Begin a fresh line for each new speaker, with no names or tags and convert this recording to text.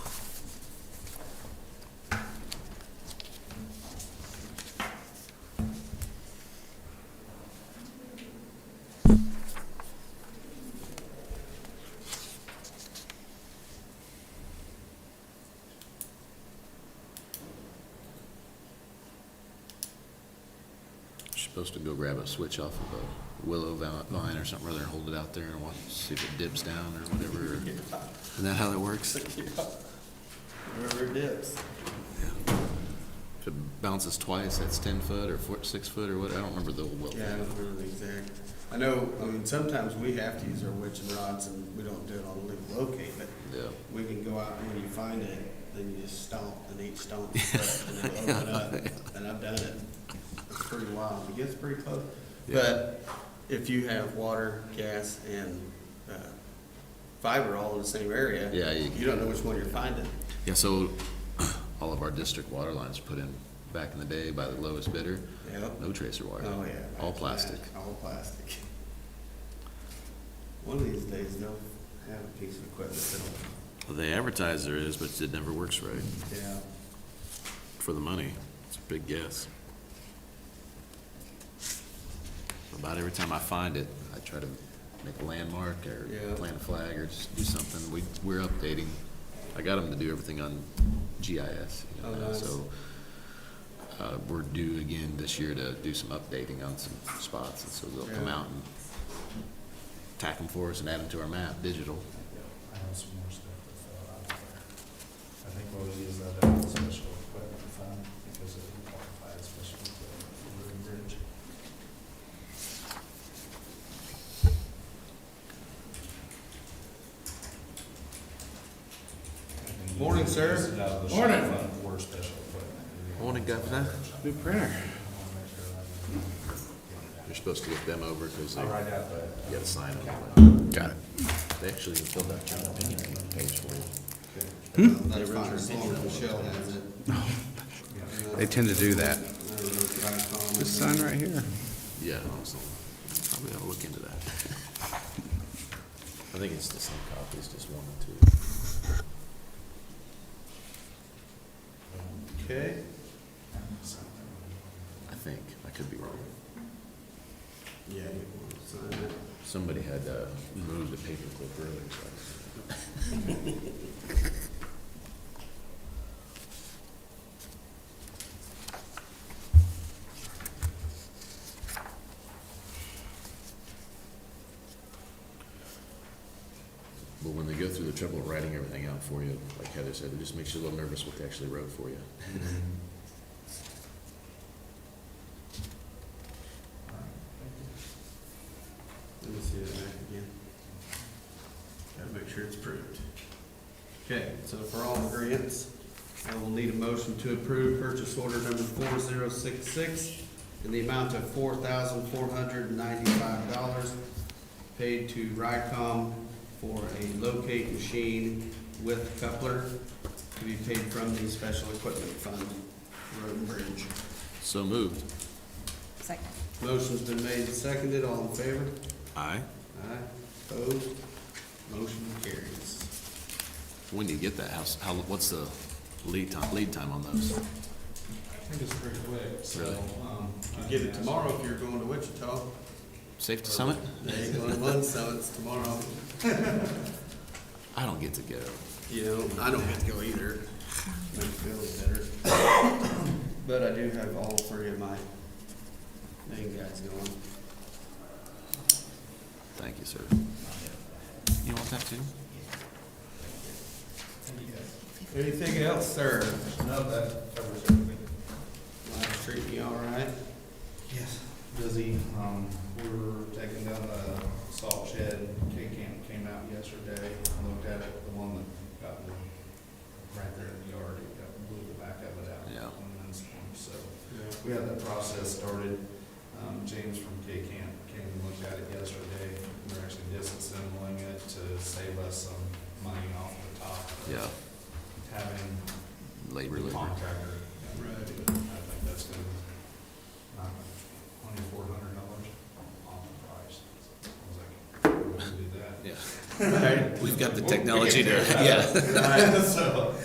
supposed to go grab a switch off of a willow val- vine or something, rather hold it out there and watch, see if it dips down or whatever. Isn't that how that works? If
Wherever it dips.
it bounces twice, that's ten foot or four, six foot or what, I don't remember the old willow.
Yeah, I don't remember the exact. I know, I mean, sometimes we have to use our witching rods and we don't do it on legal locate, but
Yeah.
we can go out and when you find it, then you just stomp, and each stomp, is cut, and it'll open up, and I've done it. It's pretty wild, it gets pretty close.
Yeah.
But if you have water, gas, and, uh, fiber all in the same area.
Yeah, you-
You don't know which one you're finding.
Yeah, so all of our district water lines were put in back in the day by the lowest bidder,
Yep.
no tracer wire.
Oh, yeah.
All
imagine
plastic.
that, All plastic. One of these days, they'll have a piece of equipment that'll,
Well, They advertise there is, but it never works right
yeah.
for the money. It's a big guess.
About every time I find it, I try to make a landmark or
Yeah.
plant a flag or just do something. We, we're updating. I got them to do everything on GIS, you know,
Oh,
now,
nice.
so. Uh, we're due again this year to do some updating on some spots, and so they'll come
Yeah.
out and tack them for us and add them to our map, digital.
I have some more stuff to fill out there. I think we'll use that as a special equipment fund because it would qualify as special equipment for River Bridge. And you
Morning,
can
sir.
use it out of the
Morning.
shop fund Or special equipment.
Morning, Governor.
New printer.
You're supposed to look them over because they,
I'll
you
write out the.
gotta sign them.
Got it.
They actually filled out your opinion page for you.
Hmm?
That's fine, as long as Michelle has it.
They tend to do that. This
Just
sign right here.
Yeah, also, probably ought to look into that. I think it's the same copies, just one or two.
Okay,
I think, I could be wrong.
yeah, you want to sign it.
Somebody had uh, moved a paperclip earlier. so I- But when they go through the trouble of writing everything out for you, like Heather said, it just makes you a little nervous what they actually wrote for you.
Let me see that back again. Gotta make sure it's approved. Okay, so for all agreeance, I will need a motion to approve purchase order number four zero six six in the amount of four thousand four hundred and ninety-five dollars paid to Rycom for a locate machine with coupler to be paid from the special equipment fund, road and bridge.
So moved.
Second.
Motion's been made and seconded, all in favor?
Aye.
Aye, opposed, motion carries.
When do you get that? How, s- how, what's the lead time, lead time on those?
I think it's pretty quick, so.
Really?
um,
You get it tomorrow if you're going to Wichita.
Safety Summit?
They ain't going to one, so it's tomorrow.
I don't get to go.
You know, I don't get to go either. Makes me feel better. But I do have all three of my main guys going.
Thank you, sir. You want that too?
Anything else, sir?
No, that covers everything.
Life treating you all right?
Yes, busy. Um, we were taking down the salt shed. K Camp came out yesterday, and looked at it, the one that got the, right there in the yard, it got, blew the back of it out.
Yeah.
And then some, so we had that process started. Um, James from K Camp came and looked at it yesterday. We're actually disassembling it to save us some money off the top. of
Yeah,
Having
labor,
the
labor.
contractor.
Right.
I think that's gonna, knock twenty-four hundred dollars on the price. I was like, we can do that.
Yeah.
Right.
We've got the technology to, yeah.
Right, so,